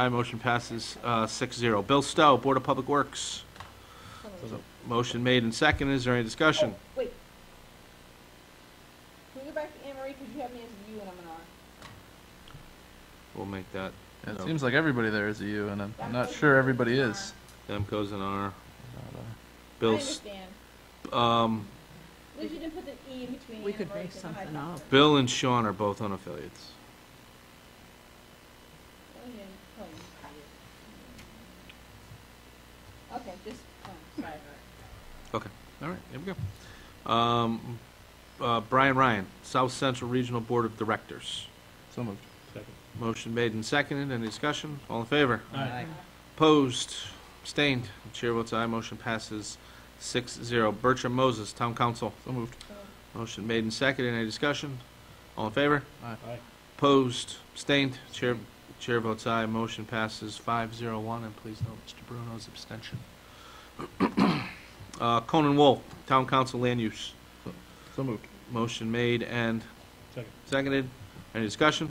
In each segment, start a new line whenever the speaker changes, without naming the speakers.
Aye, motion passes uh, 6-0. Bill Stowe, Board of Public Works. Motion made and seconded, is there any discussion?
Oh, Wait. Can we go back to Anne Marie, because you have me as you and I'm an R.
We'll make that,
Yeah, It
No.
seems like everybody there is a U, and I'm I'm not sure everybody is.
Demko's an R.
I
Bill, S-
understand.
um,
At least you didn't put the E in between
We
Anne
could
Marie
make
and Hyde
something
Park.
Bill and Sean are both unaffiliates.
Oh, yeah, oh, yeah. Okay, just, oh, sorry.
All right, there we go. Um, uh, Brian Ryan, South Central Regional Board of Directors.
So moved.
Motion made and seconded, any discussion? All in favor?
Aye.
Opposed, abstained, chair votes aye, motion passes 6-0. Bertram Moses, Town Council.
So moved.
Motion made and seconded, any discussion? All in favor?
Aye.
Aye.
Opposed, abstained, chair, chair votes aye, motion passes five zero one, and please note Mr. Bruno's abstention. Uh, Conan Wolf, Town Council Land Use,
So moved.
motion made and
Second.
seconded, any discussion?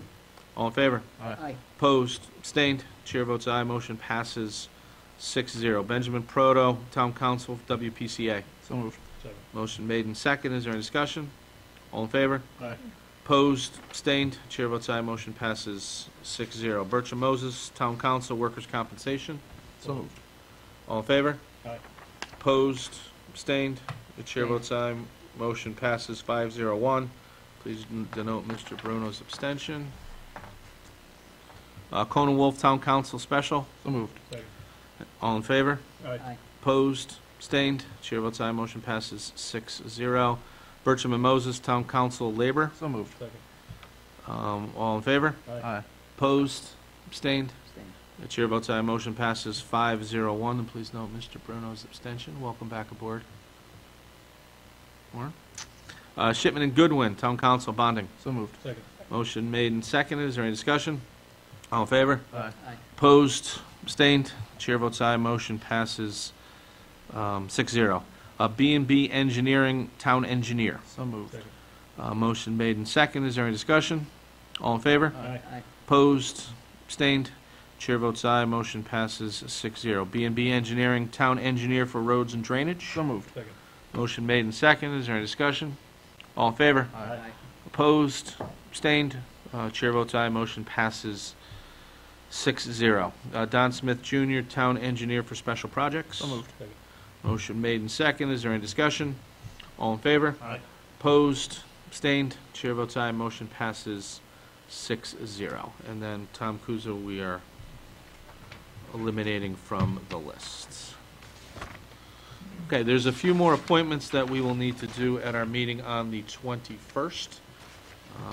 All in favor?
Aye.
Opposed, abstained, chair votes aye, motion passes six zero. Benjamin Proto, Town Council, WPCA,
So moved.
Second.
motion made and seconded, is there any discussion? All in favor?
Aye.
Opposed, abstained, chair votes aye, motion passes 6-0. Bertram Moses, Town Council, Workers' Compensation,
So moved.
all in favor?
Aye.
Opposed, abstained, the chair votes aye, motion passes five zero one. Please n- denote Mr. Bruno's abstention. Uh, Conan Wolf, Town Council Special,
So moved.
Second.
all in favor?
Aye.
Opposed, abstained, chair votes aye, motion passes 6-0. Bertram and Moses, Town Council Labor,
So moved.
Second.
um, all in favor?
Aye.
Opposed, abstained?
Abstained.
The chair votes aye, motion passes five zero one, and please note Mr. Bruno's abstention. Welcome back aboard. Warren? Uh, Shipman and Goodwin, Town Council bonding.
So moved.
Second.
Motion made and seconded, is there any discussion? All in favor?
Aye.
Aye.
Opposed, abstained? Chair votes aye, motion passes um, six zero. B and B Engineering, Town Engineer.
So moved.
Second.
Uh, Motion made and seconded, is there any discussion? All in favor?
Aye.
Aye.
Opposed, abstained, chair votes aye, motion passes six zero. B and B Engineering, Town Engineer for Roads and Drainage.
So moved.
Second.
Motion made and seconded, is there any discussion? All in favor?
Aye.
Opposed, abstained, uh, chair votes aye, motion passes six zero. Uh, Don Smith Jr., Town Engineer for Special Projects.
So moved.
Second.
Motion made and seconded, is there any discussion? All in favor?
Aye.
Opposed, abstained, chair votes aye, motion passes six zero. And then Tom Kuzo, we are eliminating from the list. Okay, there's a few more appointments that we will need to do at our meeting on the twenty-first. Um,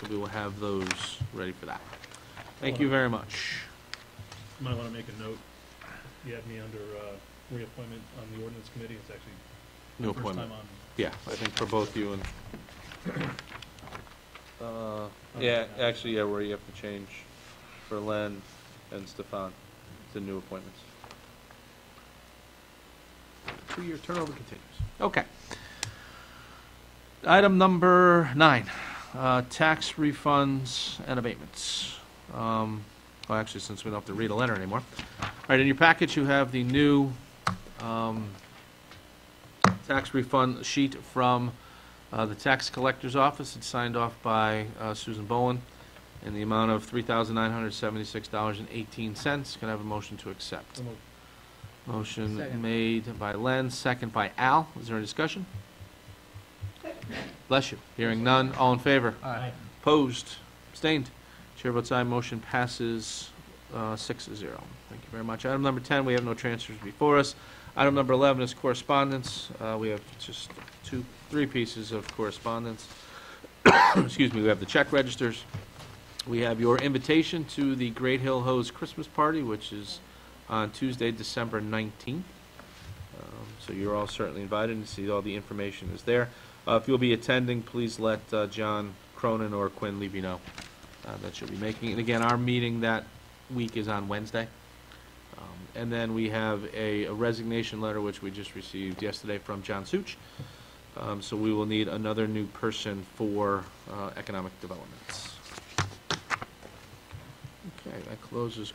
So we will have those ready for that. Thank you very much.
Might want to make a note. You had me under uh, reappointment on the ordinance committee. It's actually
New
the first
appointment.
time on.
Yeah, I think for both you and. Uh, yeah, actually, yeah, where you have to change for Len and Stefan, the new appointments. Two-year turnover continues. Okay. Item number nine, uh, tax refunds and abatements. Um, well, actually, since we don't have to read a letter anymore. All right, in your package, you have the new, um, tax refund sheet from uh, the tax collector's office. It's signed off by uh, Susan Bowen in the amount of $3,976.18. Can I have a motion to accept?
So moved.
Motion
Second.
made by Len, second by Al. Is there any discussion? Bless you. Hearing none. All in favor?
Aye.
Opposed? Abstained? Chair votes aye. Motion passes uh, six to zero. Thank you very much. Item number 10, we have no transfers before us. Item number 11 is correspondence. Uh, We have just two, three pieces of correspondence. Excuse me, we have the check registers. We have your invitation to the Great Hill Hose Christmas Party, which is on Tuesday, December 19th. Um, So you're all certainly invited, and see all the information is there. Uh, If you'll be attending, please let uh, John Cronin or Quinn Levy know uh, that you'll be making. it. And again, our meeting that week is on Wednesday. Um, And then we have a a resignation letter, which we just received yesterday from John Such. Um, So we will need another new person for uh, economic development. Okay, that closes